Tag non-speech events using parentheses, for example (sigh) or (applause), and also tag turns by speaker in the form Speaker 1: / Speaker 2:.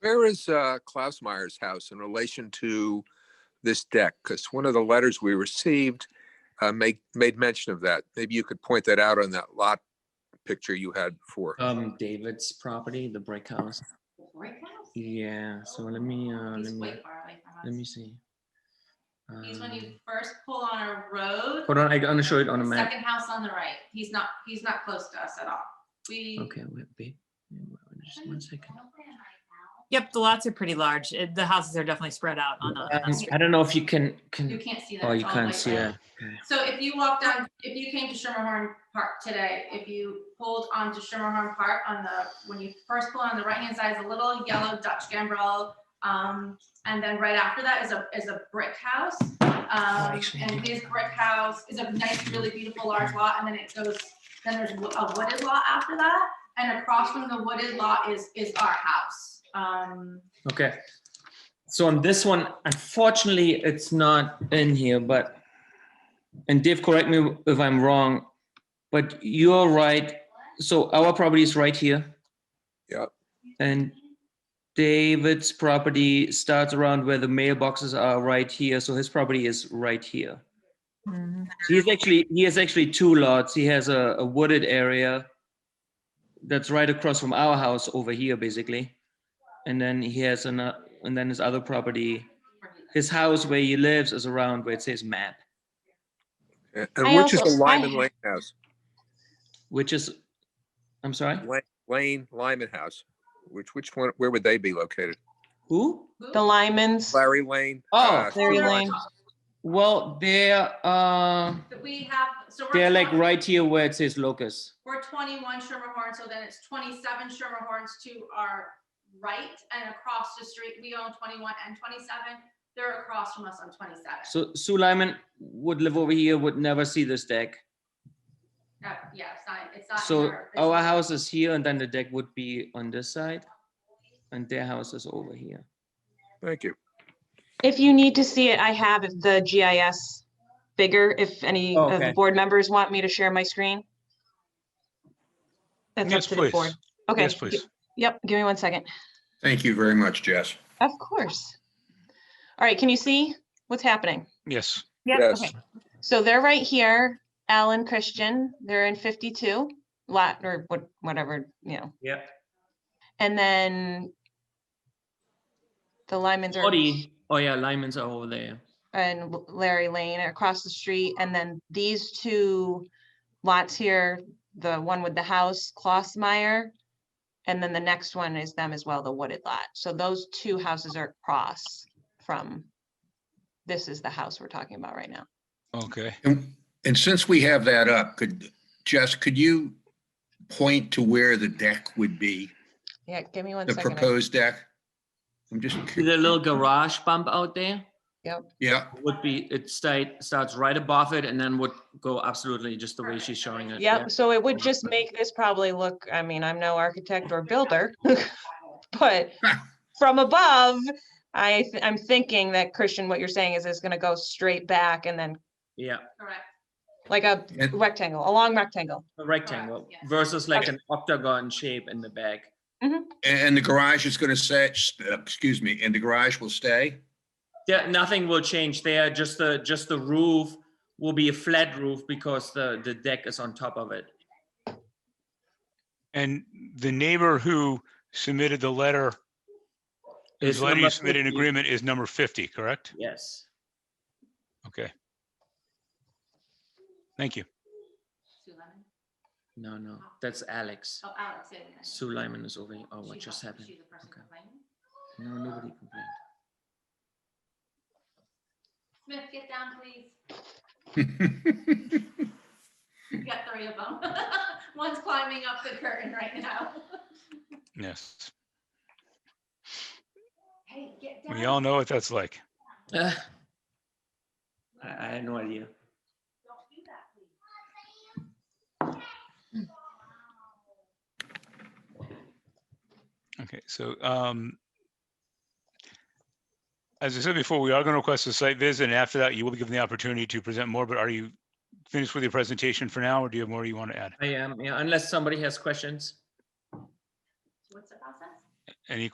Speaker 1: Where is uh, Klausmeyer's house in relation to this deck? Because one of the letters we received uh, made, made mention of that. Maybe you could point that out on that lot picture you had before.
Speaker 2: Um, David's property, the brick house.
Speaker 3: The brick house?
Speaker 2: Yeah, so let me, uh,
Speaker 3: He's
Speaker 2: let me,
Speaker 3: way far away from
Speaker 2: let
Speaker 3: us.
Speaker 2: me see.
Speaker 3: He's when you
Speaker 2: Um,
Speaker 3: first pull on a road.
Speaker 2: Hold on, I gonna show it on a
Speaker 3: the
Speaker 2: map.
Speaker 3: Second house on the right. He's not, he's not close to us at all. We.
Speaker 2: Okay, wait, babe, just one second.
Speaker 4: Yep, the lots are pretty large. It- The houses are definitely spread out on the- on the
Speaker 2: Um,
Speaker 4: street.
Speaker 2: I don't know if you can, can,
Speaker 3: You can't see that.
Speaker 2: oh,
Speaker 3: It's
Speaker 2: you
Speaker 3: all
Speaker 2: can't
Speaker 3: white
Speaker 2: see
Speaker 3: round.
Speaker 2: it.
Speaker 3: So if you walk down, if you came to Schermerhorn Park today, if you pulled onto Schermerhorn Park on the, when you first pull on the right-hand side is a little yellow Dutch gambrel. Um, and then right after that is a, is a brick house. Um,
Speaker 2: actually, I
Speaker 3: and
Speaker 2: do.
Speaker 3: this brick house is a nice, really beautiful large lot, and then it goes, then there's wo- a wooded lot after that. And across from the wooded lot is, is our house. Um,
Speaker 2: Okay. So on this one, unfortunately, it's not in here, but, and Dave, correct me if I'm wrong, but you're right. So our property is right here.
Speaker 1: Yep.
Speaker 2: And David's property starts around where the mailboxes are right here. So his property is right here.
Speaker 4: Mhm.
Speaker 2: He's actually, he has actually two lots. He has a a wooded area that's right across from our house over here, basically. And then he has an, uh, and then his other property, his house where he lives is around where it says map,
Speaker 1: And and
Speaker 5: I
Speaker 1: which is the
Speaker 5: also- I-
Speaker 1: Lyman Lane house?
Speaker 2: which is, I'm sorry,
Speaker 1: La- Lane, Lyman House, which, which one, where would they be located?
Speaker 2: who?
Speaker 5: The Lyman's.
Speaker 1: Larry Lane?
Speaker 2: Oh,
Speaker 1: uh,
Speaker 5: Larry
Speaker 1: Stewart?
Speaker 5: Lane.
Speaker 2: Well, they're, uh,
Speaker 3: That we have, so. we're
Speaker 2: they're like
Speaker 3: talking-
Speaker 2: right here where it says locus.
Speaker 3: We're twenty-one Schermerhorn, so then it's twenty-seven Schermerhorns to our right and across the street. We own twenty-one and twenty-seven. They're across from us on twenty-seven.
Speaker 2: So Sue Lyman would live over here, would never see this deck.
Speaker 3: Uh, Yeah, it's not, it's not. in
Speaker 2: So oh,
Speaker 3: our
Speaker 2: our
Speaker 3: business.
Speaker 2: house is here and then the deck would be on this side and their house is over here.
Speaker 1: Thank you.
Speaker 5: If you need to see it, I have the GIS bigger, if any of
Speaker 2: Oh, Okay.
Speaker 5: the board members want me to share my screen. That's up
Speaker 6: Yes,
Speaker 5: to the
Speaker 6: please.
Speaker 5: board. Okay.
Speaker 6: Yes,
Speaker 5: gi-
Speaker 6: please.
Speaker 5: Yep, give me one second.
Speaker 7: Thank you very much, Jess.
Speaker 5: Of course. All right, can you see what's happening?
Speaker 6: Yes.
Speaker 1: Yes.
Speaker 5: okay. So they're right here, Alan Christian, they're in fifty-two lot or what, whatever, you know,
Speaker 2: Yep.
Speaker 5: and then the Lyman's are
Speaker 2: Audi. Oh yeah, Lyman's are over there.
Speaker 5: and L- Larry Lane are across the street, and then these two lots here, the one with the house, Klossmeyer, and then the next one is them as well, the wooded lot. So those two houses are across from, this is the house we're talking about right now.
Speaker 6: Okay.
Speaker 7: And and since we have that up, could, Jess, could you point to where the deck would be,
Speaker 5: Yeah, give me one
Speaker 7: the
Speaker 5: second. I-
Speaker 7: proposed deck? I'm just,
Speaker 2: See
Speaker 7: cur-
Speaker 2: the little garage bump out there?
Speaker 7: yeah,
Speaker 2: Would be, it start, starts right above it and then would go absolutely just the way she's showing it. yeah.
Speaker 5: Yep, so it would just make this probably look, I mean, I'm no architect or builder, (laughs) but from above, I, th- I'm thinking that Christian, what you're saying is it's gonna go straight back and then
Speaker 2: Yeah,
Speaker 3: Correct.
Speaker 5: like a
Speaker 7: and
Speaker 5: rectangle, a long rectangle.
Speaker 2: a rectangle
Speaker 3: yeah.
Speaker 2: versus like
Speaker 7: Okay.
Speaker 2: an octagon shape in the back.
Speaker 7: and the garage is going to say, excuse me, and the garage will stay?
Speaker 2: Yeah, nothing will change there, just the, just the roof will be a flat roof because the, the deck is on top of it.
Speaker 6: And the neighbor who submitted the letter,
Speaker 2: It's
Speaker 6: whose letter you
Speaker 2: number
Speaker 6: submitted an
Speaker 2: 50.
Speaker 6: agreement is number 50, correct?
Speaker 2: Yes.
Speaker 6: Okay. Thank you.
Speaker 3: Sue Lemon.
Speaker 2: No, no, that's Alex.
Speaker 3: Oh, Alex. yeah, yeah, yeah.
Speaker 2: Sue Lyman is over here. Oh, what
Speaker 3: She's
Speaker 2: just
Speaker 3: not-
Speaker 2: happened?
Speaker 3: she's the person
Speaker 2: Okay.
Speaker 3: complaining.
Speaker 2: No, nobody complained.
Speaker 3: Smith, get down, please.
Speaker 2: (laughs)
Speaker 3: You got three of them. (laughs) One's climbing up the curtain right now. (laughs)
Speaker 6: Yes.
Speaker 3: Hey, get down.
Speaker 6: We all know what that's like.
Speaker 2: Uh, I, I had no idea.
Speaker 3: Don't do that, please.
Speaker 6: Okay, so, um, as I said before, we are going to request a site visit, and after that, you will be given the opportunity to present more, but are you finished with your presentation for now, or do you have more you want to add?
Speaker 2: um, I am, yeah, unless somebody has questions.
Speaker 3: What's the process?
Speaker 6: Any